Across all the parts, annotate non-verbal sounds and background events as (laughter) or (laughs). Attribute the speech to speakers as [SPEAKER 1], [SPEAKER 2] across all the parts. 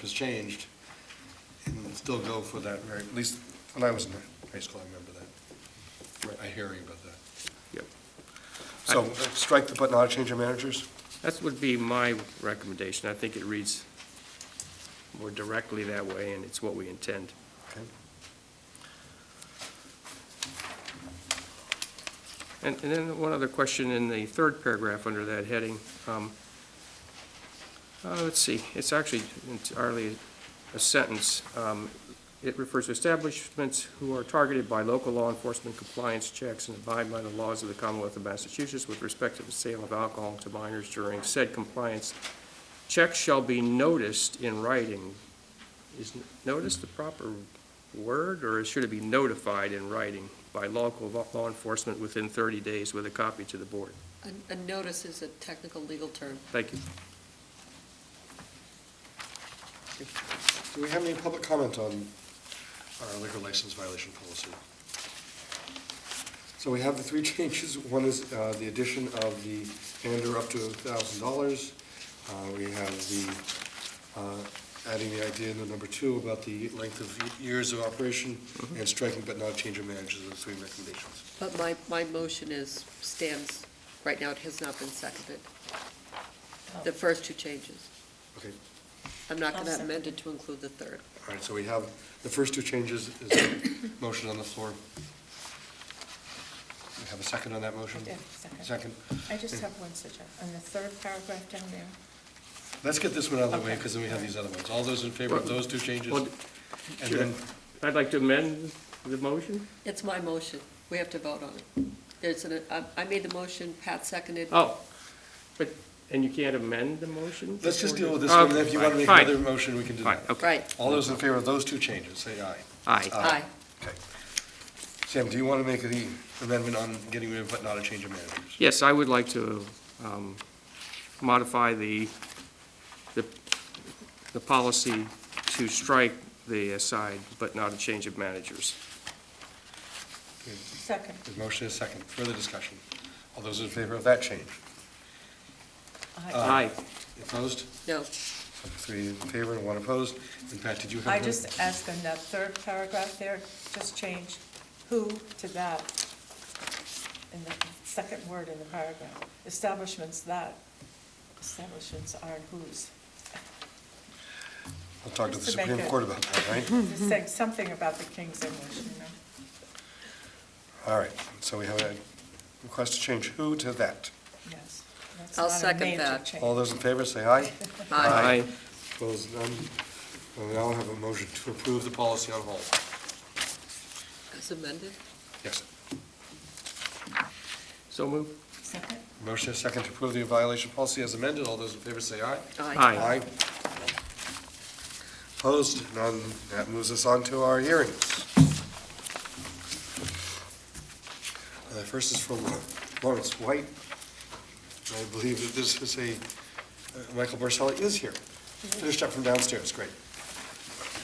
[SPEAKER 1] has changed, and still go for that, right, at least, when I was in high school, I remember that. Right, I hear you about that.
[SPEAKER 2] Yep.
[SPEAKER 1] So, uh, strike the but not change of managers?
[SPEAKER 2] That would be my recommendation. I think it reads more directly that way, and it's what we intend.
[SPEAKER 1] Okay.
[SPEAKER 2] And, and then one other question in the third paragraph under that heading. um, uh, Let's see, it's actually entirely a sentence. Um, It refers to establishments who are targeted by local law enforcement compliance checks and abide by the laws of the Commonwealth of Massachusetts with respect to the sale of alcohol to minors during said compliance. Checks shall be noticed in writing. Is notice the proper word, or should it be notified in writing by local law- law enforcement within 30 days with a copy to the board?
[SPEAKER 3] A, a notice is a technical legal term.
[SPEAKER 2] Thank you.
[SPEAKER 1] Do we have any public comment on our liquor license violation policy? So we have the three (laughs) changes. One is uh, the addition of the vendor up to thousand dollars. We have the, uh, adding the idea in the number two about the length of years of operation and striking but not change of managers are the three recommendations.
[SPEAKER 3] But my, my motion is, stands, right now it has not been seconded. The first two changes.
[SPEAKER 1] Okay,
[SPEAKER 3] I'm not going
[SPEAKER 4] Oh. I'll
[SPEAKER 3] to
[SPEAKER 4] second.
[SPEAKER 3] amend it to include the third.
[SPEAKER 1] all right, so we have the first two changes is a motion on the floor. We have a second on that motion?
[SPEAKER 4] Yeah, second.
[SPEAKER 1] Second.
[SPEAKER 4] I just have one suggestion, on the third paragraph down there,
[SPEAKER 1] Let's get this one out of the way,
[SPEAKER 4] Okay.
[SPEAKER 1] because then we have these other ones. All those in favor of those two changes?
[SPEAKER 2] Well,
[SPEAKER 1] And then,
[SPEAKER 2] I'd like to amend the motion.
[SPEAKER 3] It's my motion. We have to vote on it. There's an, I, I made the motion, Pat seconded.
[SPEAKER 2] Oh, but, and you can't amend the motion?
[SPEAKER 1] let's just deal with this
[SPEAKER 2] Okay,
[SPEAKER 1] one, and if you want to make
[SPEAKER 2] Um, fine,
[SPEAKER 1] another motion, we can do
[SPEAKER 2] Fine,
[SPEAKER 1] that.
[SPEAKER 2] okay.
[SPEAKER 3] Right,
[SPEAKER 1] All those in favor of those two changes, say aye. Uh,
[SPEAKER 2] Aye.
[SPEAKER 3] aye.
[SPEAKER 1] Okay. Sam, do you want to make the amendment on getting rid of but not a change of managers?
[SPEAKER 2] Yes, I would like to um, modify the, the, the policy to strike the aside, but not a change of managers.
[SPEAKER 4] second,
[SPEAKER 1] The motion is second. Further discussion? All those in favor of that change?
[SPEAKER 4] I,
[SPEAKER 2] Aye.
[SPEAKER 1] Opposed?
[SPEAKER 3] No,
[SPEAKER 1] Three in favor and one opposed. And Pat, did you have?
[SPEAKER 4] I
[SPEAKER 1] one?
[SPEAKER 4] just uh, ask on that third paragraph there, just change who to that in the second word in the paragraph. Establishments that, establishments aren't whose.
[SPEAKER 1] I'll talk to the
[SPEAKER 4] just to make
[SPEAKER 1] Supreme
[SPEAKER 4] it-
[SPEAKER 1] Court about that, right?
[SPEAKER 4] (laughs) Just
[SPEAKER 3] Mm-hmm.
[SPEAKER 4] saying something about the King's English, you know?
[SPEAKER 1] All right, so we have a request to change who to that.
[SPEAKER 4] Yes. That's
[SPEAKER 3] I'll
[SPEAKER 4] not a
[SPEAKER 3] second
[SPEAKER 4] major
[SPEAKER 3] that.
[SPEAKER 4] change.
[SPEAKER 1] All those in favor, say aye.
[SPEAKER 3] aye.
[SPEAKER 1] Aye. Opposed, none. Well, We now have a motion to approve the policy on hold.
[SPEAKER 3] As amended?
[SPEAKER 1] Yes.
[SPEAKER 2] So move.
[SPEAKER 4] Second?
[SPEAKER 1] Motion is second to approve the violation policy as amended. All those in favor say aye.
[SPEAKER 2] Aye.
[SPEAKER 1] Opposed, none. That moves us on to our hearings. Uh, First is from Lawrence White. I believe that this is a, uh, Michael Borselli is here. Finished up from downstairs, great.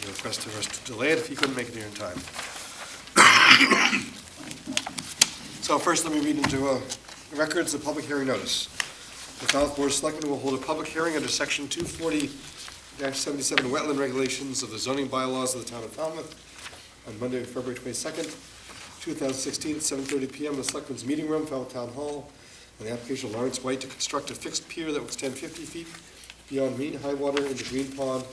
[SPEAKER 1] He Requested us to delay it if he couldn't make it here in time. So first, let me read into uh, records the public hearing notice. The Falmouth Board of Selectmen will hold a public hearing under Section 240-77 Wetland Regulations of the zoning bylaws of the town of Falmouth on Monday, February 22nd, 2016, at 7:30 PM in the Selectmen's Meeting Room, Falmouth Town Hall, on the application of Lawrence White to construct a fixed pier that will extend 50 feet beyond mean high water into Green Pond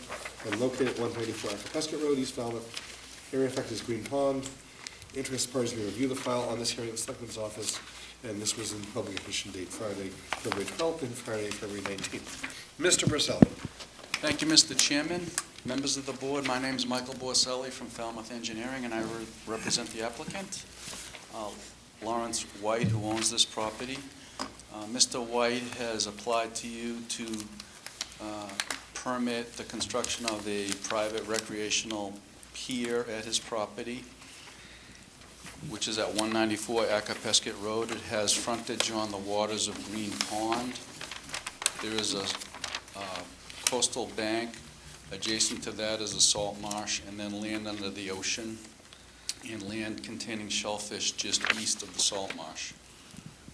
[SPEAKER 1] and located at 184 Pescott Road, East Falmouth. Area affected is Green Pond. Interested parties may review the file on this hearing at the Selectmen's office, and this was in publication date Friday, February 12th and Friday, February 19th. Mr. Purcell,
[SPEAKER 5] Thank you, Mr. Chairman, members of the board. My name is Michael Borselli from Falmouth Engineering, and I re- represent the applicant, uh, Lawrence White, who owns this property. Uh, Mr. White has applied to you to uh, permit the construction of a private recreational pier at his property, which is at 194 Acapesket Road. It has frontage on the waters of Green Pond. There is a uh, coastal bank. Adjacent to that is a salt marsh, and then land under the ocean, and land containing shellfish just east of the salt marsh.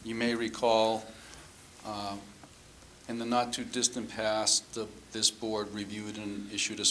[SPEAKER 5] You may recall, uh, in the not-too-distant past, the- this board reviewed and issued a